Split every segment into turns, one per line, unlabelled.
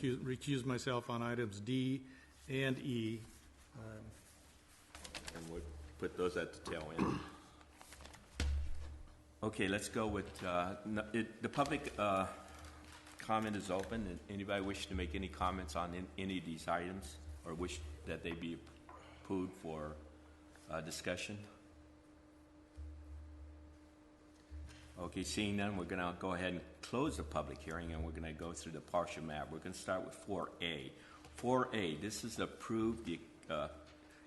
recuse- recuse myself on items D and E.
And we'll put those at the tail end. Okay, let's go with, uh, n- it- the public uh, comment is open. And Anybody wish to make any comments on an- any of these items or wish that they be approved for uh, discussion? Okay, seeing none, we're going to go ahead and close the public hearing, and we're going to go through the partial map. We're going to start with 4A. 4A, this is approved, the, uh,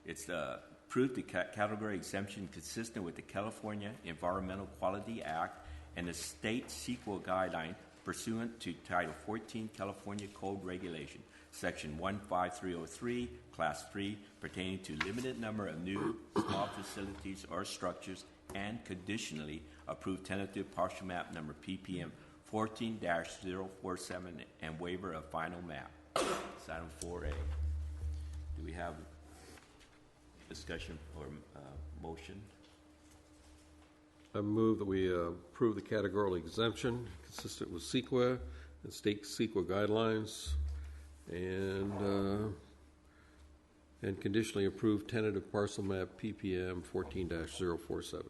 it's the, approved the ca- category exemption consistent with the California Environmental Quality Act and the state sequel guideline pursuant to Title 14 California Code Regulation, Section 15303, Class 3, pertaining to limited number of new small facilities or structures and conditionally approved tentative partial map number PPM 14-047 and waiver of final map. It's item 4A. Do we have discussion or uh, motion?
I move that we uh, approve the categorical exemption consistent with CEQA and state CEQA guidelines and, uh, and conditionally approve tentative parcel map PPM 14-047.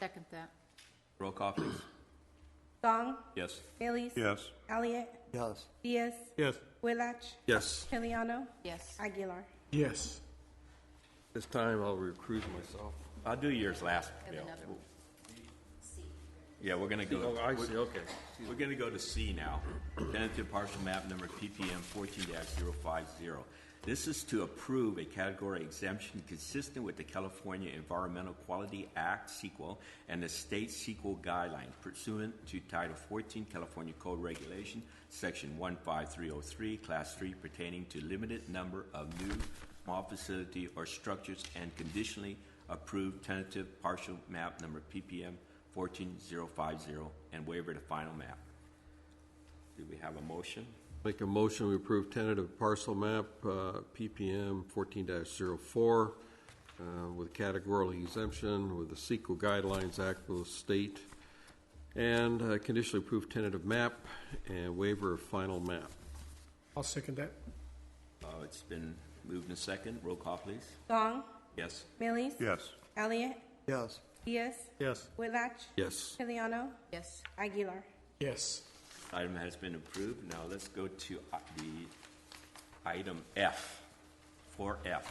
Second that.
Roll call, please.
Gong,
Yes.
Bailey's.
Yes.
Elliot.
Yes.
Diaz.
Yes.
Willach.
Yes.
Piliano.
Yes.
Aguilar.
Yes.
This time I'll recruit myself.
I'll do yours last,
And
Bill.
another one.
Yeah, we're gonna go,
Oh, I see, okay.
we're gonna go to C now. Tentative partial map number PPM fourteen 50 This is to approve a category exemption consistent with the California Environmental Quality Act sequel and the state sequel guideline pursuant to Title fourteen California Code Regulation, Section one five three oh three, Class three pertaining to limited number of new small facility or structures and conditionally approved tentative partial map number PPM 14050 and waiver to final map. Do we have a motion?
Make a motion, we approve tentative parcel map uh, PPM 14-04 uh, with categorical exemption with the CEQA guidelines act of the state and uh, conditionally approved tentative map and waiver of final map.
I'll second that.
Uh, It's been moved and second. Roll call, please.
Gong,
Yes.
Bailey's.
Yes.
Elliot.
Yes.
Diaz.
Yes.
Willach.
Yes.
Piliano.
Yes.
Aguilar.
Yes.
Item has been approved. Now let's go to uh, the item F, 4F.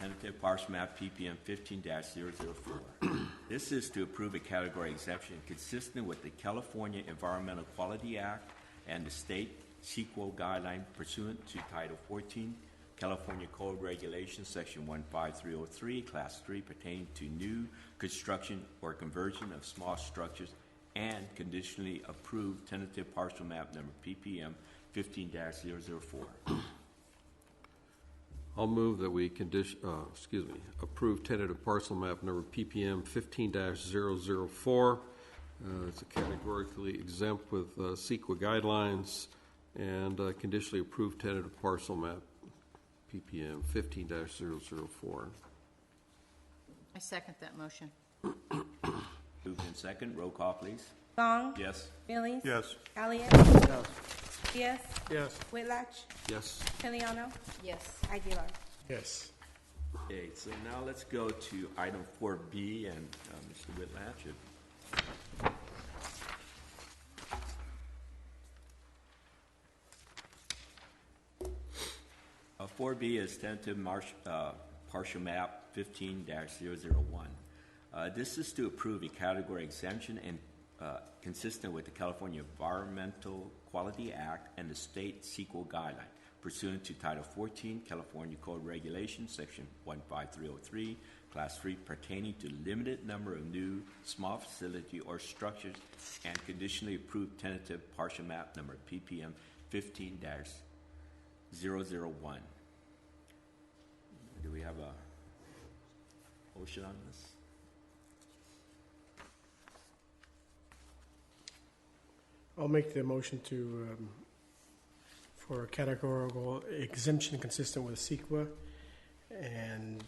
Tentative parcel map PPM 15-004. This is to approve a category exemption consistent with the California Environmental Quality Act and the state CEQA guideline pursuant to Title 14 California Code Regulations, Section 15303, Class 3, pertaining to new construction or conversion of small structures and conditionally approved tentative parcel map number PPM 15-004.
I'll move that we condition, uh, excuse me, approve tentative parcel map number PPM 15-004. Uh, It's categorically exempt with uh, CEQA guidelines and uh, conditionally approved tentative parcel map PPM 15-004.
I second that motion.
Moved in second, roll call, please.
Gong,
Yes.
Bailey's.
Yes.
Elliot. Diaz.
Yes.
Willach.
Yes.
Piliano.
Yes.
Aguilar.
Yes.
Okay, so now let's go to item 4B and uh, Mr. Whitlatch. if- Uh, 4B is tentative marsh- uh, partial map 15-001. Uh, This is to approve a category exemption and uh, consistent with the California Environmental Quality Act and the state sequel guideline pursuant to Title 14 California Code Regulations, Section 15303, Class 3, pertaining to limited number of new small facility or structures and conditionally approved tentative partial map number PPM 15 001. Do we have a motion on this?
I'll make the motion to, um, for a categorical exemption consistent with CEQA and,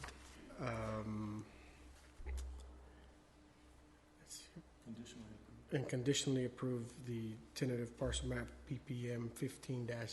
um, and conditionally approve the tentative parcel map PPM fifteen 0